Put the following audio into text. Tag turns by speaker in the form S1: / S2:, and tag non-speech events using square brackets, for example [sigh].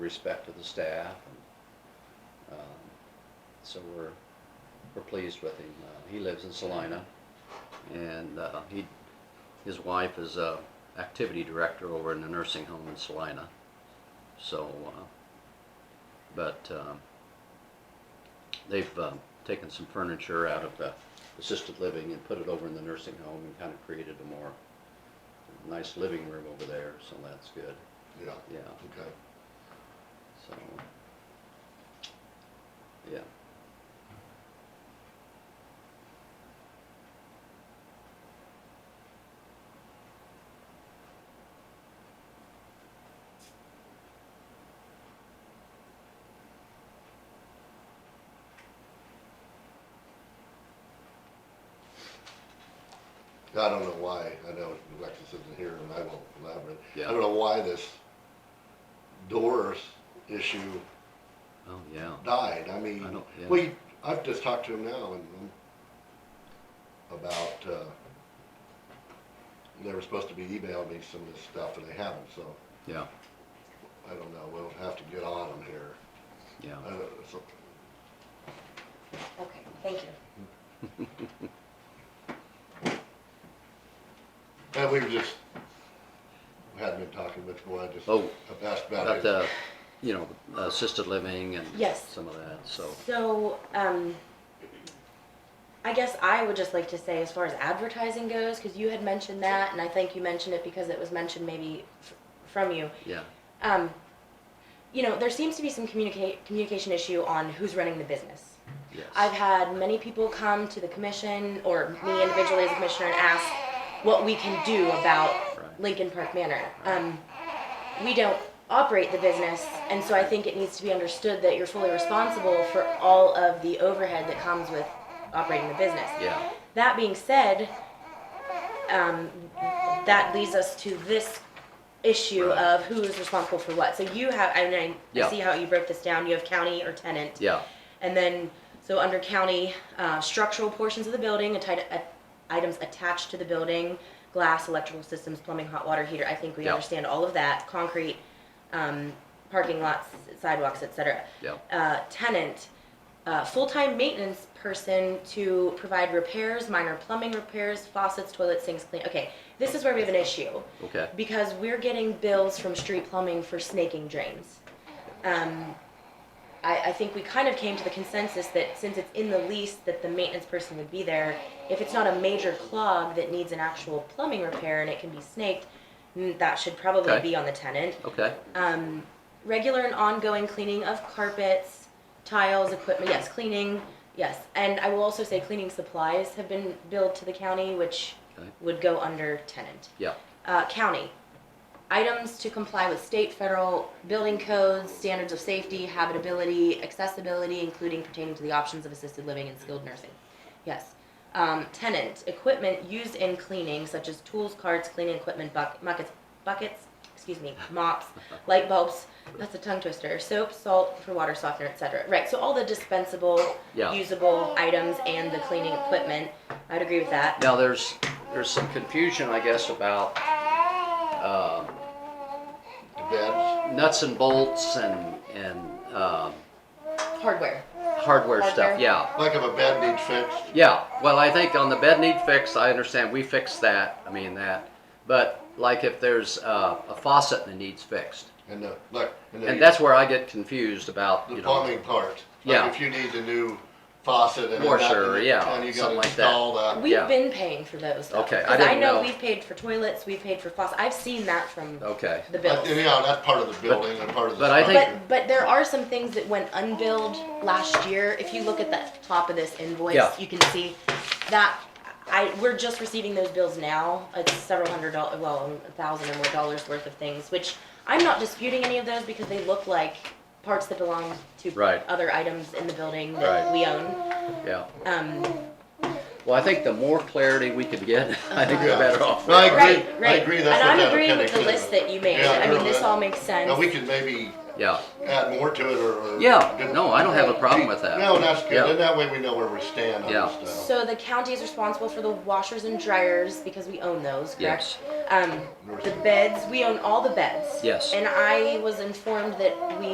S1: respect to the staff. and, um, So we're, we're pleased with him. Uh, He lives in Salina, and uh, he, his wife is a activity director over in the nursing home in Salina. So, uh, but um, they've um, taken some furniture out of the assisted living and put it over in the nursing home and kind of created a more nice living room over there, so that's good,
S2: Yeah,
S1: yeah,
S2: okay.
S1: so. Yeah,
S2: I don't know why, I know Alexis isn't here and I won't elaborate. I
S1: Yeah.
S2: don't know why this Doris issue
S1: oh, yeah,
S2: died, I mean,
S1: I don't- yeah.
S2: we, I've just talked to him now and um, about, uh, they were supposed to be emailing me some of this stuff and they haven't, so
S1: yeah,
S2: I don't know, we'll have to get on them here.
S1: yeah,
S2: I don't- so-
S3: Okay, thank you.
S2: And we were just, we hadn't been talking much more, I just,
S1: Oh.
S2: I've asked about
S1: about
S2: it.
S1: the, you know, the assisted living and
S3: Yes.
S1: some of that, so,
S3: So, um, I guess I would just like to say, as far as advertising goes, because you had mentioned that, and I think you mentioned it because it was mentioned maybe f- from you.
S1: yeah,
S3: Um, you know, there seems to be some communicate communication issue on who's running the business.
S1: yes.
S3: I've had many people come to the commission or me individually as a commissioner and ask what we can do about
S1: Right.
S3: Lincoln Park Manor. Um, we don't operate the business, and so I think it needs to be understood that you're fully responsible for all of the overhead that comes with operating the business.
S1: Yeah,
S3: That being said, um, that leads us to this issue
S1: Right.
S3: of who is responsible for what. So you have, I mean, I
S1: Yeah.
S3: see how you broke this down. You have county or tenant.
S1: yeah,
S3: And then, so under county, uh, structural portions of the building, atti- uh, items attached to the building, glass, electrical systems, plumbing, hot water heater, I think we
S1: Yeah.
S3: understand all of that, concrete, um, parking lots, sidewalks, et cetera.
S1: yeah,
S3: Uh, tenant, uh, full-time maintenance person to provide repairs, minor plumbing repairs, faucets, toilet sinks, clean, okay, this is where we have an issue
S1: okay,
S3: because we're getting bills from street plumbing for snaking drains. Um, I, I think we kind of came to the consensus that since it's in the lease, that the maintenance person would be there. If it's not a major clog that needs an actual plumbing repair and it can be snaked, mm, that should probably
S1: Okay.
S3: be on the tenant.
S1: okay,
S3: Um, regular and ongoing cleaning of carpets, tiles, equipment, yes, cleaning, yes. And I will also say cleaning supplies have been billed to the county, which
S1: Okay.
S3: would go under tenant
S1: yeah,
S3: uh, county. Items to comply with state, federal building codes, standards of safety, habitability, accessibility, including pertaining to the options of assisted living and skilled nursing. Yes. Um, tenant, equipment used in cleaning, such as tools, carts, cleaning equipment, buck- buckets, buckets, excuse me, mops, light bulbs, that's a tongue twister, soap, salt for water softener, etc. Right, so all the dispensable,
S1: Yeah.
S3: usable items and the cleaning equipment, I'd agree with that.
S1: Now, there's, there's some confusion, I guess, about, um,
S2: The beds,
S1: nuts and bolts and, and, um,
S3: Hardware.
S1: hardware
S3: Hardware.
S1: stuff, yeah.
S2: like if a bed needs fixed,
S1: Yeah, well, I think on the bed need fix, I understand, we fixed that, I mean that. But like if there's, uh, a faucet that needs fixed,
S2: and the, like, and
S1: and
S2: the,
S1: that's where I get confused about,
S2: the
S1: you know.
S2: plumbing part.
S1: Yeah.
S2: Like if you need a new faucet and.
S1: Washer,
S2: and-
S1: yeah,
S2: And you
S1: something
S2: gotta
S1: like that.
S2: install that.
S3: We've
S1: Yeah.
S3: been paying for those. Though,
S1: Okay, I
S3: 'Cause
S1: didn't
S3: know,
S1: know.
S3: we've paid for toilets, we've paid for faucets. I've seen that from
S1: Okay,
S3: the
S2: But,
S3: bills.
S2: Yeah, that's part of the building and part of the.
S1: but I think-
S2: structure.
S3: But but there are some things that went unbilled last year. If you look at the top of this invoice,
S1: Yeah.
S3: you can see that I we're just receiving those bills now. It's several hundred dollars, well, a thousand or more dollars worth of things, which I'm not disputing any of those because they look like parts that belong to
S1: Right.
S3: other items in the building that
S1: Right.
S3: we own.
S1: yeah.
S3: Um,
S1: Well, I think the more clarity we could get, [laughs] I think the
S2: Uh-huh.
S1: better off. we
S2: No,
S1: are.
S2: I agree.
S3: Right, right.
S2: agree, that's
S3: And
S2: what
S3: I'm
S2: that
S3: agreeing with the
S2: appendix is.
S3: list that you made.
S2: Yeah,
S3: I mean, this
S2: you're
S3: all
S2: right.
S3: makes sense.
S2: Now, we could maybe
S1: Yeah,
S2: add more to it or. or-
S1: yeah, no, I don't have a problem with that.
S2: No, that's good,
S1: Yeah.
S2: and that way we know where we stand on
S1: Yeah.
S2: this stuff.
S3: So the county is responsible for the washers and dryers because we own those,
S1: Yes.
S3: correct? Um, the beds, we own all the beds.
S1: Yes.
S3: And I was informed that we